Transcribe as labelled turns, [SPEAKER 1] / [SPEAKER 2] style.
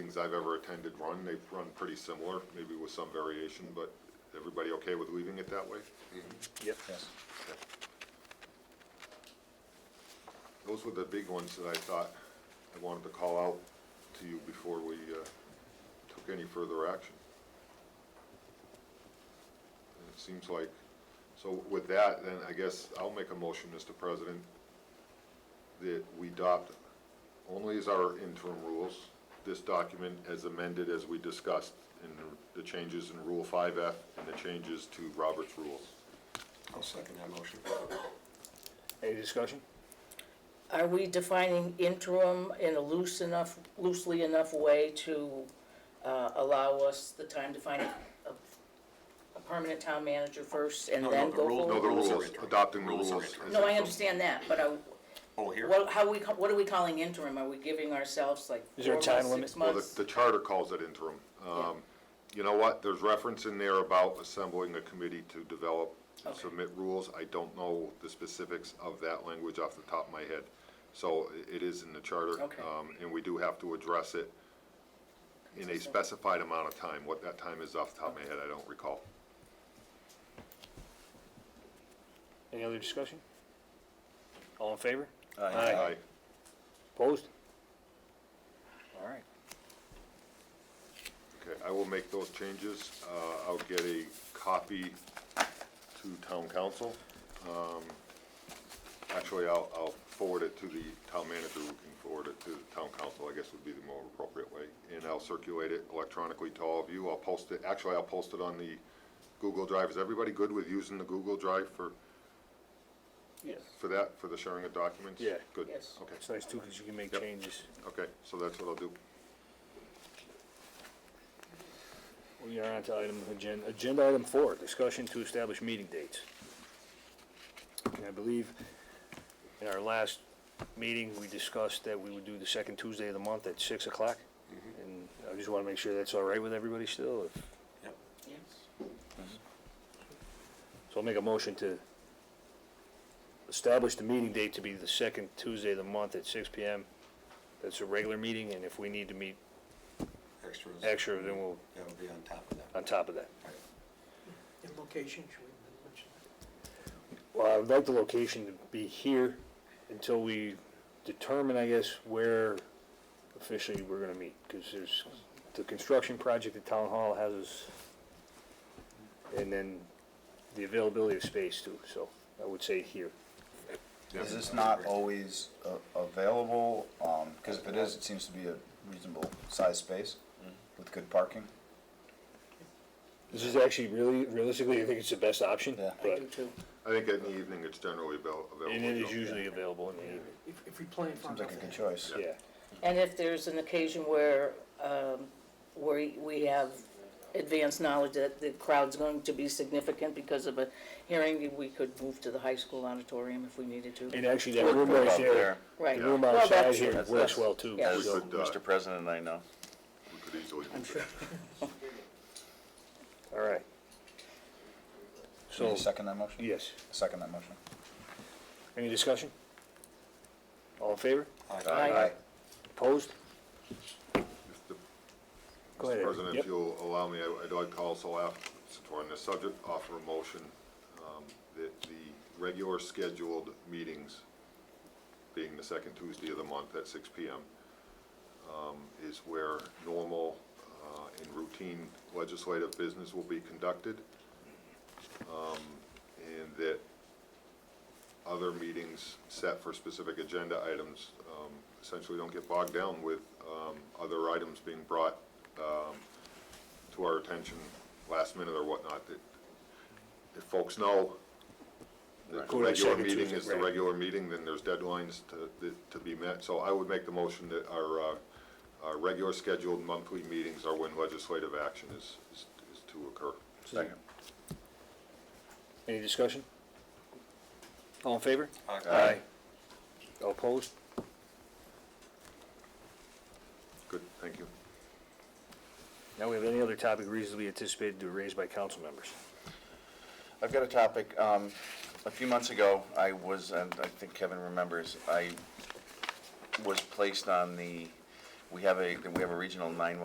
[SPEAKER 1] meetings I've ever attended run, they've run pretty similar, maybe with some variation, but everybody okay with leaving it that way?
[SPEAKER 2] Yep.
[SPEAKER 1] Those were the big ones that I thought I wanted to call out to you before we uh, took any further action. And It seems like, so with that, then I guess I'll make a motion, Mr. President, that we adopt only as our interim rules, this document as amended as we discussed in the- the changes in Rule 5F and the changes to Robert's Rules.
[SPEAKER 2] I'll second that motion. Any discussion?
[SPEAKER 3] Are we defining interim in a loose enough, loosely enough way to uh, allow us the time to find a, a permanent town manager first and
[SPEAKER 4] No, no,
[SPEAKER 3] then
[SPEAKER 4] the
[SPEAKER 3] go
[SPEAKER 1] No,
[SPEAKER 4] rules-
[SPEAKER 3] forward?
[SPEAKER 1] the
[SPEAKER 4] Rules are
[SPEAKER 1] rules,
[SPEAKER 4] interim.
[SPEAKER 1] adopting the
[SPEAKER 4] Rules
[SPEAKER 1] rules.
[SPEAKER 4] are
[SPEAKER 1] as
[SPEAKER 4] interim.
[SPEAKER 3] No, I understand that, but are,
[SPEAKER 4] Oh, here?
[SPEAKER 3] what, how we, ca- what are we calling interim? Are we giving ourselves like
[SPEAKER 2] Is
[SPEAKER 3] four
[SPEAKER 2] there a
[SPEAKER 3] months,
[SPEAKER 2] time
[SPEAKER 3] six
[SPEAKER 2] limit?
[SPEAKER 1] Well, the,
[SPEAKER 3] months?
[SPEAKER 1] the charter calls it interim. Um, you know what, there's reference in there about assembling a committee to develop and
[SPEAKER 3] Okay.
[SPEAKER 1] submit rules. I don't know the specifics of that language off the top of my head. So i- it is in the charter.
[SPEAKER 3] Okay.
[SPEAKER 1] um, And we do have to address it in a specified amount of time. What that time is off the top of my head, I don't recall.
[SPEAKER 2] Any other discussion? All in favor?
[SPEAKER 1] Aye.
[SPEAKER 2] Opposed? All right.
[SPEAKER 1] Okay, I will make those changes. Uh, I'll get a copy to town council. Um, Actually, I'll, I'll forward it to the town manager, who can forward it to the town council, I guess would be the more appropriate way. And I'll circulate it electronically to all of you. I'll post it, actually, I'll post it on the Google Drive. Is everybody good with using the Google Drive for,
[SPEAKER 2] Yes.
[SPEAKER 1] for that, for the sharing of documents?
[SPEAKER 2] Yeah.
[SPEAKER 1] Good.
[SPEAKER 3] Yes.
[SPEAKER 1] Okay,
[SPEAKER 2] It's nice too, because you can make
[SPEAKER 1] Yep.
[SPEAKER 2] changes.
[SPEAKER 1] okay, so that's what I'll do.
[SPEAKER 2] We are on to item, agenda, agenda item four, discussion to establish meeting dates. And I believe in our last meeting, we discussed that we would do the second Tuesday of the month at six o'clock.
[SPEAKER 1] Mm-hmm.
[SPEAKER 2] And I just want to make sure that's all right with everybody still. if-
[SPEAKER 4] Yep.
[SPEAKER 3] Yes.
[SPEAKER 2] So I'll make a motion to establish the meeting date to be the second Tuesday of the month at six P M. That's a regular meeting, and if we need to meet
[SPEAKER 4] Extras.
[SPEAKER 2] extra, then we'll,
[SPEAKER 4] That'll be on top of that.
[SPEAKER 2] on top of that.
[SPEAKER 5] And location, should we mention that?
[SPEAKER 2] Well, I would like the location to be here until we determine, I guess, where officially we're gonna meet, because there's, the construction project at Town Hall has us, and then the availability of space too, so I would say here.
[SPEAKER 1] Yeah.
[SPEAKER 6] Is this not always a- available? Because if it is, it seems to be a reasonable sized space
[SPEAKER 7] Mm-hmm.
[SPEAKER 6] with good parking.
[SPEAKER 2] This is actually really, realistically, I think it's the best option,
[SPEAKER 6] Yeah.
[SPEAKER 3] I
[SPEAKER 2] but,
[SPEAKER 3] do too.
[SPEAKER 1] I think in the evening, it's generally avail- available.
[SPEAKER 2] and it is
[SPEAKER 1] so-
[SPEAKER 2] usually available in the evening,
[SPEAKER 5] If, if we plan for
[SPEAKER 6] Seems like a good
[SPEAKER 5] nothing,
[SPEAKER 6] choice.
[SPEAKER 2] yeah.
[SPEAKER 3] And if there's an occasion where, um, where we have advanced knowledge that the crowd's going to be significant because of a hearing, we could move to the high school auditorium if we needed to.
[SPEAKER 2] And actually, that room right there,
[SPEAKER 3] Right.
[SPEAKER 2] the room
[SPEAKER 3] Well,
[SPEAKER 2] outside
[SPEAKER 3] that's-
[SPEAKER 2] here
[SPEAKER 7] That's-
[SPEAKER 2] works
[SPEAKER 7] that's-
[SPEAKER 2] well too,
[SPEAKER 3] Yeah.
[SPEAKER 7] As
[SPEAKER 1] We
[SPEAKER 2] so,
[SPEAKER 1] could, uh,
[SPEAKER 7] Mr. President, I know.
[SPEAKER 1] We could easily. do that.
[SPEAKER 2] all right.
[SPEAKER 6] Can
[SPEAKER 2] So,
[SPEAKER 6] you second that motion?
[SPEAKER 2] yes.
[SPEAKER 6] Second that motion.
[SPEAKER 2] Any discussion? All in favor?
[SPEAKER 3] Aye.
[SPEAKER 2] Opposed?
[SPEAKER 1] If the
[SPEAKER 2] Go
[SPEAKER 1] Mr.
[SPEAKER 2] ahead.
[SPEAKER 1] President,
[SPEAKER 2] Yep.
[SPEAKER 1] if you'll allow me, I- I'd like to also, af- since we're on this subject, offer a motion um, that the regular scheduled meetings, being the second Tuesday of the month at 6 PM, um, is where normal uh, and routine legislative business will be conducted, um, and that other meetings set for specific agenda items um, essentially don't get bogged down with um, other items being brought um, to our attention last minute or whatnot, that if folks know that the
[SPEAKER 2] Go to the
[SPEAKER 1] regular
[SPEAKER 2] second
[SPEAKER 1] meeting
[SPEAKER 2] Tuesday,
[SPEAKER 1] is the
[SPEAKER 2] right.
[SPEAKER 1] regular meeting, then there's deadlines to, that- to be met. So I would make the motion that our, uh, our regular scheduled monthly meetings are when legislative action is, is is to occur.
[SPEAKER 6] Second.
[SPEAKER 2] Any discussion? All in favor?
[SPEAKER 4] Aye.
[SPEAKER 2] All Opposed?
[SPEAKER 1] Good, thank you.
[SPEAKER 2] Now we have any other topic reasonably anticipated to be raised by council members?
[SPEAKER 7] I've got a topic. Um, a few months ago, I was, and I think Kevin remembers, I was placed on the
[SPEAKER 6] we have a, we have a regional nine